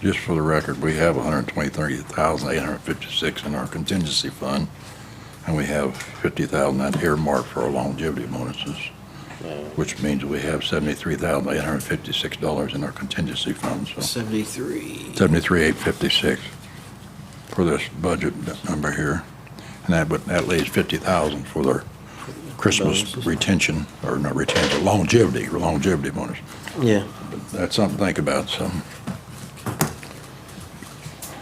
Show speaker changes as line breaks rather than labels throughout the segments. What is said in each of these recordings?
just for the record, we have 123,856 in our contingency fund, and we have 50,000 that earmarked for our longevity bonuses, which means we have $73,856 in our contingency fund, so
73.
73,856 for this budget number here. And that, but that leaves 50,000 for their Christmas
Bonuses.
retention, or not retention, longevity, longevity bonus.
Yeah.
That's something to think about, so.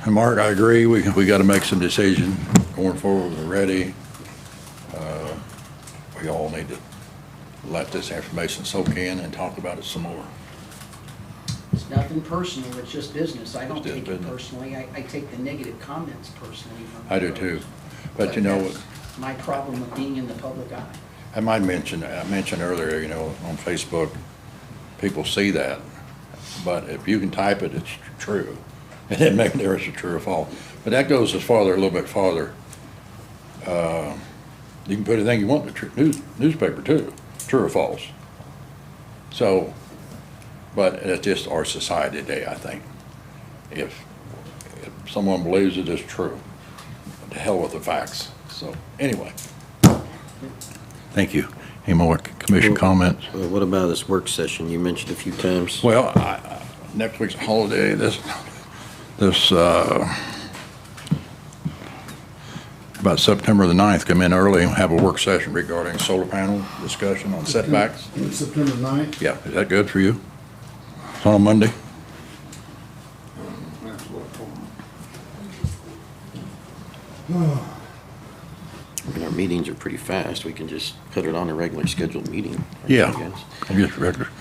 And Mark, I agree, we, we gotta make some decision going forward, we're ready. Uh, We all need to let this information soak in and talk about it some more.
It's nothing personal, it's just business. I don't
It's just
take it
business.
personally. I, I take the negative comments personally from
I do
others.
too. But you know, what?
that's My problem with being in the public eye.
I might mention, I mentioned earlier, you know, on Facebook, people see that, but if you can type it, it's true. It didn't make a difference if true or false. But that goes as farther, a little bit farther. Uh, You can put anything you want in the tr- news- newspaper too, true or false. So, but it's just our society today, I think. If, if someone believes it is true, to hell with the facts. So, anyway. Thank you. Any more commission comments?
Well, What about this work session you mentioned a few times?
Well, I- I- next week's a holiday, this, this, uh, about September the 9th, come in early and have a work session regarding solar panel discussion on setbacks.
September 9th?
Yeah, is that good for you? It's on a Monday?
I mean, our meetings are pretty fast. We can just put it on a regular scheduled meeting. I
Yeah.
guess.
I guess We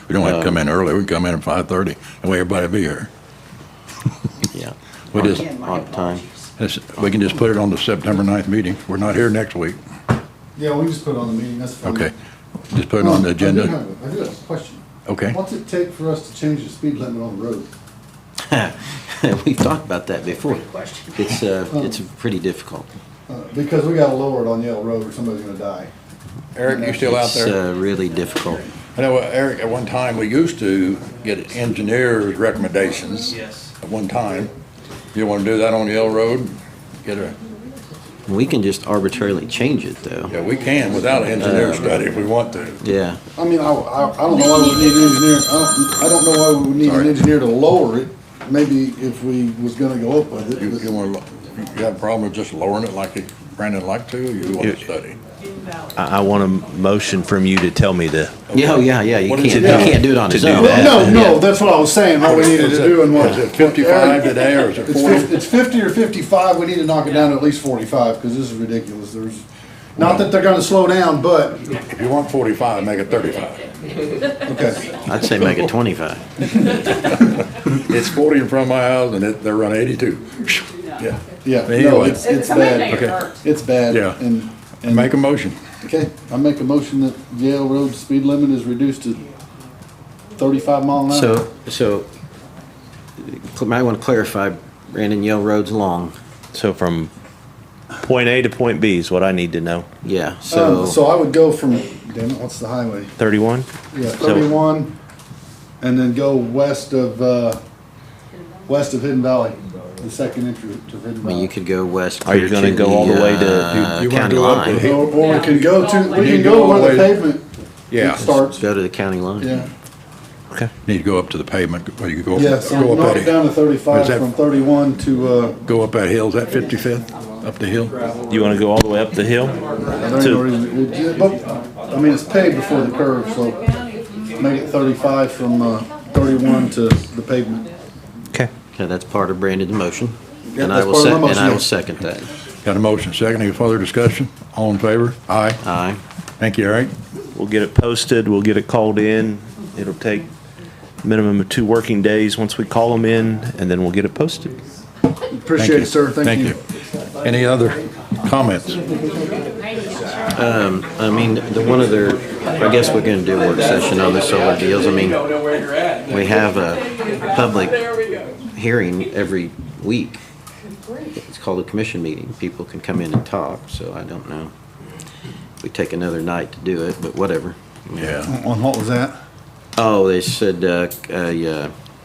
we don't have to come
Uh,
in early, we can come in at 5:30, and way everybody be here.
Yeah.
We just,
Again, my
on time.
apologies.
it's- we can just put it on the September 9th meeting, we're not here next week,
Yeah, we just put it on the meeting, that's
Mm-hmm.
fine.
okay? Just put it on the
Um, I do
agenda.
have a- I do have a question.
Okay.
What's it take for us to change the speed limit on the road?
We've talked about that before.
Great question.
It's, uh, it's pretty difficult.
Uh, Because we gotta lower it on Yale Road or somebody's gonna die.
Eric, you still out there?
It's, uh, really difficult.
I know, uh, Eric, at one time, we used to get engineers' recommendations.
Yes.
At one time. You want to do that on Yell Road? Get a,
We can just arbitrarily change it, though.
yeah, we can without an engineer study if we want to.
Yeah.
I mean, I, I, I don't know why we would need an engineer, I don't, I don't know why we would need an
Sorry.
engineer to lower it. Maybe if we was gonna go up with
You, you
it.
want to, you have a problem with just lowering it like Brandon liked to, or you want to study?
I, I want a motion from you to tell me the,
Yeah, oh, yeah, yeah. You
What
can't,
is
you
it now
can't do it on
to
its
do
own.
that?
No, no, that's what I was saying, what we needed to do and what.
Is it fifty-five today, or is it
It's
forty?
fifty, it's fifty or fifty-five, we need to knock it down to at least forty-five, because this is ridiculous, there's, not that they're gonna slow down, but,
If you want forty-five, make it thirty-five.
okay.
I'd say make it 25.
It's forty in front of my house, and it, they're running eighty-two. Yeah,
Yeah, no,
Anyway.
it's, it's
Okay.
bad, it's bad.
Yeah.
And, and,
make a motion.
okay, I make a motion that Yale Road speed limit is reduced to thirty-five mile an hour. Um,
So, so, uh, might want to clarify, Brandon, Yale Road's long.
so from point A to point B is what I need to know.
Yeah,
Um,
so,
so I would go from, damn it, what's the highway?
Thirty-one?
Yeah, thirty-one, and then go west of, uh, west of Hidden Valley, the second entry to Hidden
I mean, you
Valley.
could go west.
Are you
clear
gonna
to
go all the way to-
uh,
You- you wanna
County
go up
line.
to-
Or, or we can go to, we
You
can
go
go
all the
where the
way-
pavement
Yeah.
starts,
Go to the county line.
yeah.
Okay.
Need to go up to the pavement, or you go,
Yeah, so
go up
knock
that
it down to
Is
thirty-five
that-
from thirty-one to, uh,
Go up that hill, is that 55th, up the hill?
You wanna go all the way up the hill?
There ain't no
To,
reason- it- but, I mean, it's paved before the curve, so make it thirty-five from, uh, thirty-one to the pavement.
okay.
Okay, that's part of Brandon's motion.
Yeah,
And I
that's
will
part
sec,
of my
and
motion,
I
yeah.
will second that.
Got a motion, second, any further discussion? All in favor? Aye.
Aye.
Thank you, Eric.
We'll get it posted, we'll get it called in. It'll take minimum of two working days once we call them in, and then we'll get it posted.
Thank
Appreciate
you.
it, sir, thank you.
Thank you. Any other comments?
I mean, the one other, I guess we're gonna do a work session on the solar deals. I mean, we have a public hearing every week. It's called a commission meeting. People can come in and talk, so I don't know. We take another night to do it, but whatever.
Yeah,
On what was that?
Oh, they said, uh, c- a, uh,